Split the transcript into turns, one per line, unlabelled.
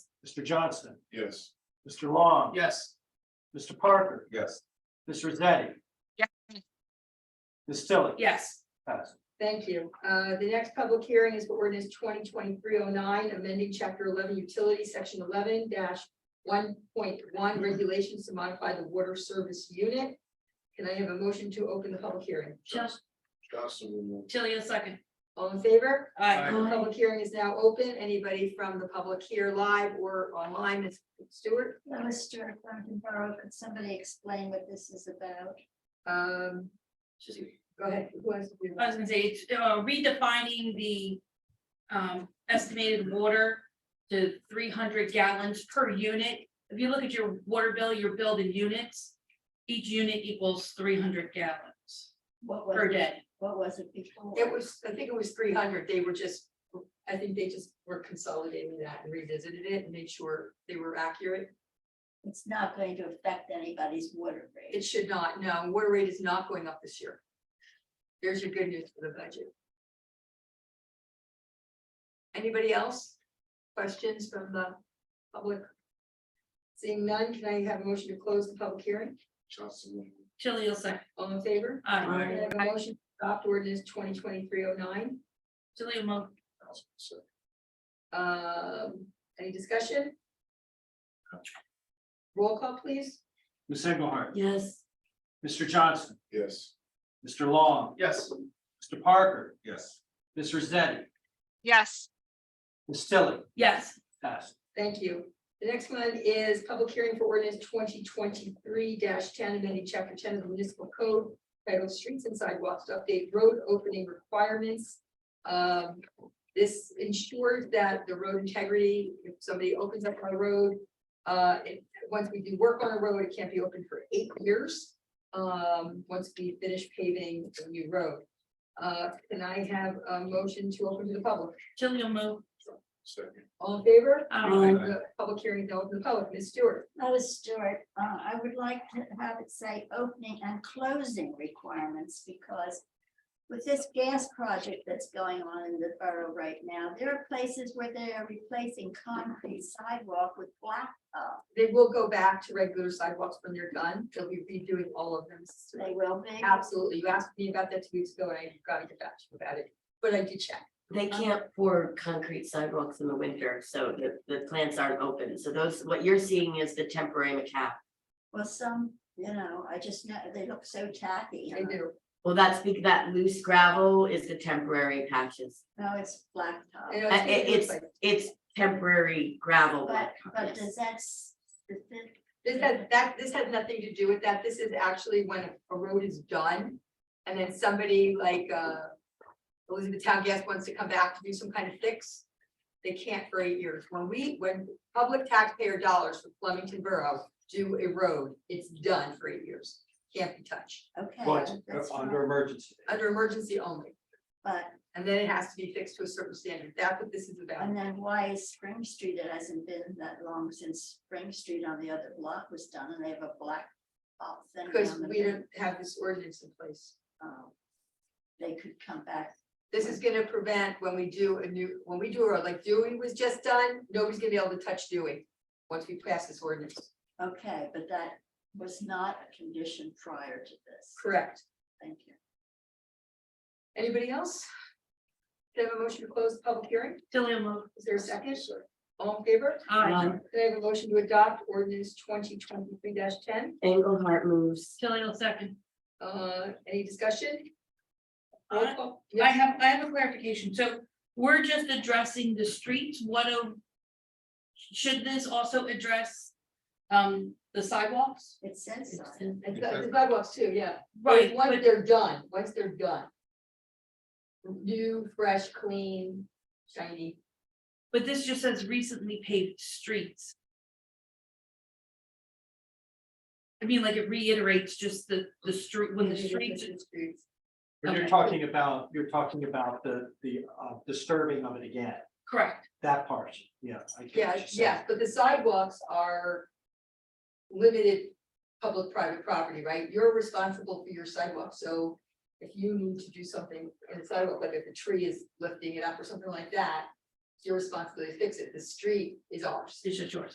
Mr. Johnson,
Yes.
Mr. Long.
Yes.
Mr. Parker,
Yes.
Ms. Rosetti.
Yes.
Ms. Tilly.
Yes,
Yes.
Thank you. Uh, The next public hearing is for ordinance twenty twenty-three oh nine, amending chapter eleven utilities, section eleven one point one regulations to modify the water service unit. Can I have a motion to open the public hearing?
Just
Johnson will move.
Tilly a second.
All in favor?
Aye.
The Public hearing is now open. Anybody from the public here live or online, Ms. Stewart?
That was Stuart Thornton Borough, but somebody explain what this is about.
Um, Go ahead. Who wants to do
I
that?
was gonna say, it's uh, redefining the um, estimated water to three hundred gallons per unit. If you look at your water bill, you're billed in units. Each unit equals three hundred gallons
What was,
per
it-
day.
what was it before?
It was, I think it was three hundred. They were just, I think they just were consolidating that and revisited it and made sure they were accurate.
It's not going to affect anybody's water rate.
It should not, no, water rate is not going up this year. There's your good news for the budget. Anybody else? Questions from the public? Seeing none, can I have a motion to close the public hearing?
Johnson will move.
Tilly a second.
All in favor?
Aye.
Can I have a motion to adopt ordinance twenty twenty-three oh nine?
Tilly a mo-
Johnson will second.
Um, any discussion? Roll call, please.
Ms. Engelhardt,
Yes.
Mr. Johnson,
Yes.
Mr. Long,
Yes.
Mr. Parker,
Yes.
Ms. Rosetti,
yes,
Ms. Tilly.
Yes.
Yes.
Thank you. The next one is public hearing for ordinance twenty twenty-three ten, amending chapter ten of the municipal code. titled streets and sidewalks to update road opening requirements. Um, this ensures that the road integrity, if somebody opens up on a road. Uh, it- once we do work on a road, it can't be open for eight years. Um, once we finish paving the new road. Uh, can I have a motion to open to the public?
Tilly a mo-
Second.
All in favor?
Aye.
The Public hearing is now open to the public. Ms. Stewart?
That was Stuart. Uh, I would like to have it say opening and closing requirements because with this gas project that's going on in the borough right now, there are places where they are replacing concrete sidewalk with blacktop.
They will go back to regular sidewalks when they're done. They'll be redoing all of them.
They will be.
Absolutely. You asked me about that two weeks ago and I gotta get back to you about it, but I did check.
They
Uh-huh.
can't pour concrete sidewalks in the winter, so the, the plants aren't open. So those, what you're seeing is the temporary macaque.
Well, some, you know, I just know, they look so tacky.
They do.
Well, that's because that loose gravel is the temporary patches.
No, it's blacktop.
And I was
Uh,
thinking it
it-
was
it's,
like-
it's temporary gravel.
But, but
yes.
does that, s- does that-
This has, that, this has nothing to do with that. This is actually when a road is done. And then somebody like, uh, Elizabethtown Gas wants to come back to do some kind of fix. They can't for eight years. When we, when public taxpayer dollars for Flemington Borough do a road, it's done for eight years. Can't be touched,
okay.
But
that's
under
fine,
emergency.
under emergency only.
But,
And then it has to be fixed to a certain standard. That's what this is about.
and then why is Spring Street, it hasn't been that long since Spring Street on the other block was done and they have a black. uh, thing
Because
on the
we don't
thing,
have this ordinance in place.
um, They could come back,
This is gonna prevent when we do a new, when we do, a road, like Dewey was just done, nobody's gonna be able to touch Dewey. Once we pass this ordinance,
okay, but that was not a condition prior to this,
correct.
thank you.
Anybody else? Do I have a motion to close the public hearing?
Tilly a mo-
Is there a second? All in favor?
Aye.
Um,
Do I have a motion to adopt ordinance twenty twenty-three ten?
Engelhardt moves.
Tilly a second.
Uh, any discussion? Roll
Aye.
call.
I
Yes.
have, I have a clarification, so we're just addressing the streets, what of? Should this also address um the sidewalks?
It says so.
And the the sidewalks too, yeah.
Right,
Once
but
they're done, once they're done. New, fresh, clean, shiny.
but this just says recently paved streets. I mean, like it reiterates just the the street, when the streets,
Streets.
When you're
Okay.
talking about, you're talking about the, the uh, disturbing of it again,
correct,
that part, yeah. I get what
Yeah,
you're saying.
yeah, but the sidewalks are limited public-private property, right? You're responsible for your sidewalk, so if you need to do something in the sidewalk, like if a tree is lifting it up or something like that, it's your responsibility to fix it. The street is ours.
It's just yours.